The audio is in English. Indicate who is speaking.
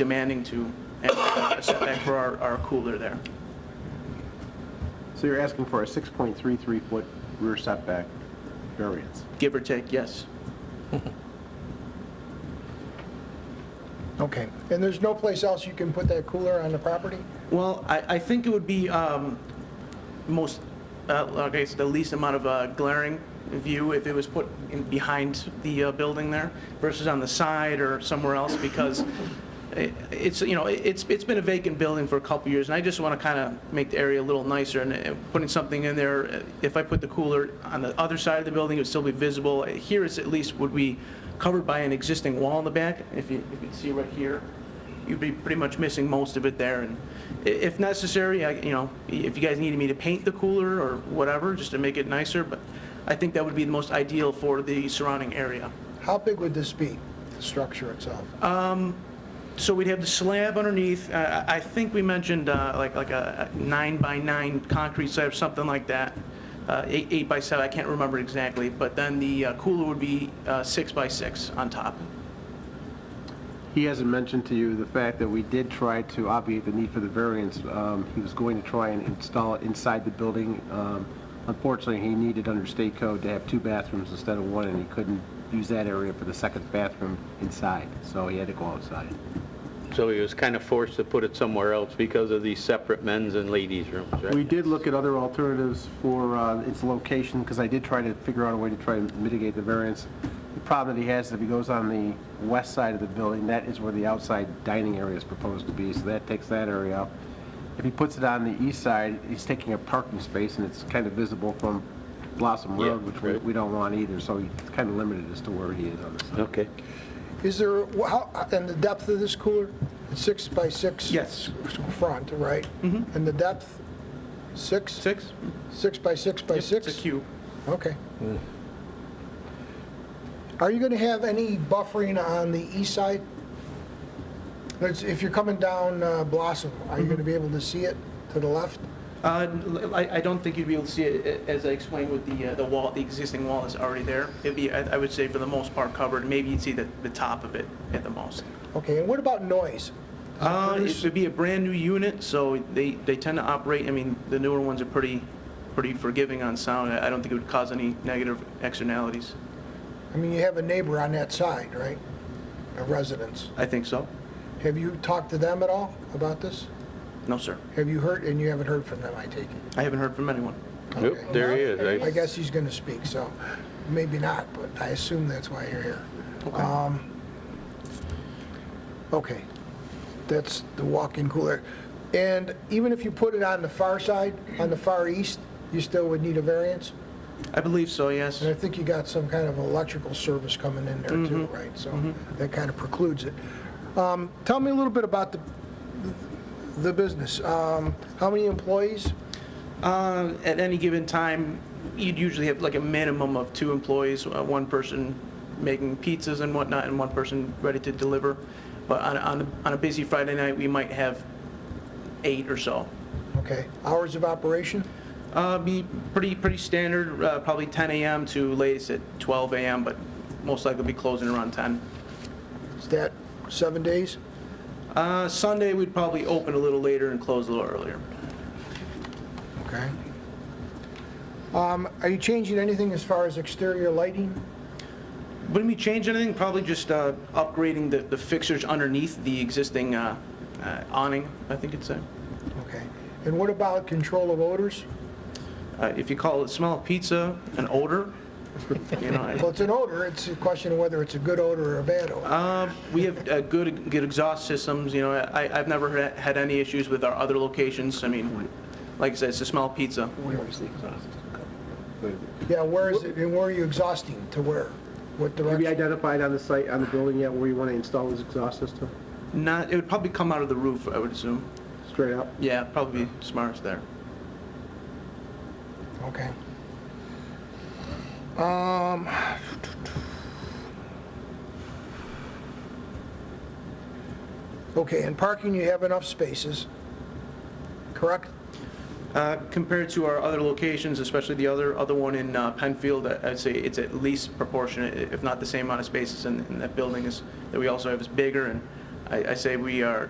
Speaker 1: demanding to and a setback for our, our cooler there.
Speaker 2: So you're asking for a 6.33-foot rear setback variance.
Speaker 1: Give or take, yes.
Speaker 3: Okay, and there's no place else you can put that cooler on the property?
Speaker 1: Well, I, I think it would be um, most, uh, like I said, the least amount of uh, glaring view if it was put in behind the uh, building there versus on the side or somewhere else because i- it's, you know, it- it's, it's been a vacant building for a couple years and I just want to kind of make the area a little nicer and uh, putting something in there, uh, if I put the cooler on the other side of the building, it would still be visible. Here it's at least would be covered by an existing wall in the back, if you, if you can see right here you'd be pretty much missing most of it there. And i- if necessary, I, you know, if you guys needed me to paint the cooler or whatever, just to make it nicer, but I think that would be the most ideal for the surrounding area.
Speaker 3: How big would this be, the structure itself?
Speaker 1: So we'd have the slab underneath, uh, I I think we mentioned uh, like, like a nine by nine concrete slab, something like that, uh, eight, eight by seven, I can't remember exactly, but then the uh, cooler would be uh, six by six on top.
Speaker 2: He hasn't mentioned to you the fact that we did try to obviate the need for the variance. Um, He was going to try and install it inside the building. Um, Unfortunately, he needed under state code to have two bathrooms instead of one, and he couldn't use that area for the second bathroom inside, so he had to go outside.
Speaker 4: So he was kind of forced to put it somewhere else because of these separate men's and ladies' rooms, right?
Speaker 2: We did look at other alternatives for uh, its location, because I did try to figure out a way to try to mitigate the variance. The problem that he has is if he goes on the west side of the building, that is where the outside dining area is proposed to be, so that takes that area out. If he puts it on the east side, he's taking a parking space, and it's kind of visible from Blossom
Speaker 4: Yeah,
Speaker 2: Road, which we-
Speaker 4: right.
Speaker 2: we don't want either, so he's kind of limited as to where he is on this.
Speaker 4: Okay.
Speaker 3: Is there, wh- how, and the depth of this cooler? It's Six by six?
Speaker 1: Yes.
Speaker 3: s- Front, right? Mm-hmm. And the depth, six?
Speaker 1: Six?
Speaker 3: Six by six by six?
Speaker 1: It's a cube.
Speaker 3: Okay. Are you going to have any buffering on the east side? That's- If you're coming down uh, Blossom, are you going to be able to see it to the left?
Speaker 1: Uh, l- I I don't think you'd be able to see it, a- as I explained with the, uh, the wall, the existing wall is already there. It'd be, I I would say for the most part covered, maybe you'd see the, the top of it at the most.
Speaker 3: Okay, and what about noise?
Speaker 1: Uh, It
Speaker 3: produce-
Speaker 1: would be a brand-new unit, so they, they tend to operate, I mean, the newer ones are pretty, pretty forgiving on sound. I I don't think it would cause any negative externalities.
Speaker 3: I mean, you have a neighbor on that side, right? A residence.
Speaker 1: I think so.
Speaker 3: Have you talked to them at all about this?
Speaker 1: No, sir.
Speaker 3: Have you heard, and you haven't heard from them, I take it?
Speaker 1: I haven't heard from anyone.
Speaker 4: Nope,
Speaker 3: Okay.
Speaker 4: there he is.
Speaker 3: I
Speaker 4: right?
Speaker 3: guess he's going to speak, so maybe not, but I assume that's why you're here. Um, Okay, that's the walk-in cooler. And even if you put it on the far side, on the far east, you still would need a variance?
Speaker 1: I believe so, yes.
Speaker 3: And I think you got some kind of electrical service coming in there too, right? So that kind of precludes it. Um, Tell me a little bit about the, the business. Um, How many employees?
Speaker 1: Uh, At any given time, you'd usually have like a minimum of two employees, uh, one person making pizzas and whatnot, and one person ready to deliver. But on, on, on a busy Friday night, we might have eight or so.
Speaker 3: Okay, hours of operation?
Speaker 1: Uh, Be pretty, pretty standard, uh, probably 10 AM to latest at 12 AM, but most likely be closing around 10.
Speaker 3: Is that seven days?
Speaker 1: Uh, Sunday, we'd probably open a little later and close a little earlier.
Speaker 3: Okay. Um, Are you changing anything as far as exterior lighting?
Speaker 1: Wouldn't we change anything? Probably just uh, upgrading the the fixtures underneath the existing uh, uh, awning, I think it's uh, a.
Speaker 3: Okay. And what about control of odors?
Speaker 1: Uh, If you call it smell of pizza an odor, you know,
Speaker 3: Well,
Speaker 1: I-
Speaker 3: it's an odor, it's a question of whether it's a good odor or a bad odor.
Speaker 1: uh, we have uh, good, good exhaust systems, you know, I, I've never had- had any issues with our other locations, I mean, like I said, it's the smell of pizza.
Speaker 2: Where is the exhaust?
Speaker 3: Yeah, where is it, and where are you exhausting, to where? What
Speaker 2: Have you
Speaker 3: direction?
Speaker 2: identified on the site, on the building yet, where you want to install his exhaust system?
Speaker 1: Not, it would probably come out of the roof, I would assume.
Speaker 2: Straight up?
Speaker 1: Yeah, probably smartest there.
Speaker 3: Okay. Um, okay, and parking, you have enough spaces, correct?
Speaker 1: Uh, Compared to our other locations, especially the other, other one in uh, Penfield, I- I'd say it's at least proportionate, i- if not the same amount of spaces in, in that building is, that we also have is bigger, and I I say we are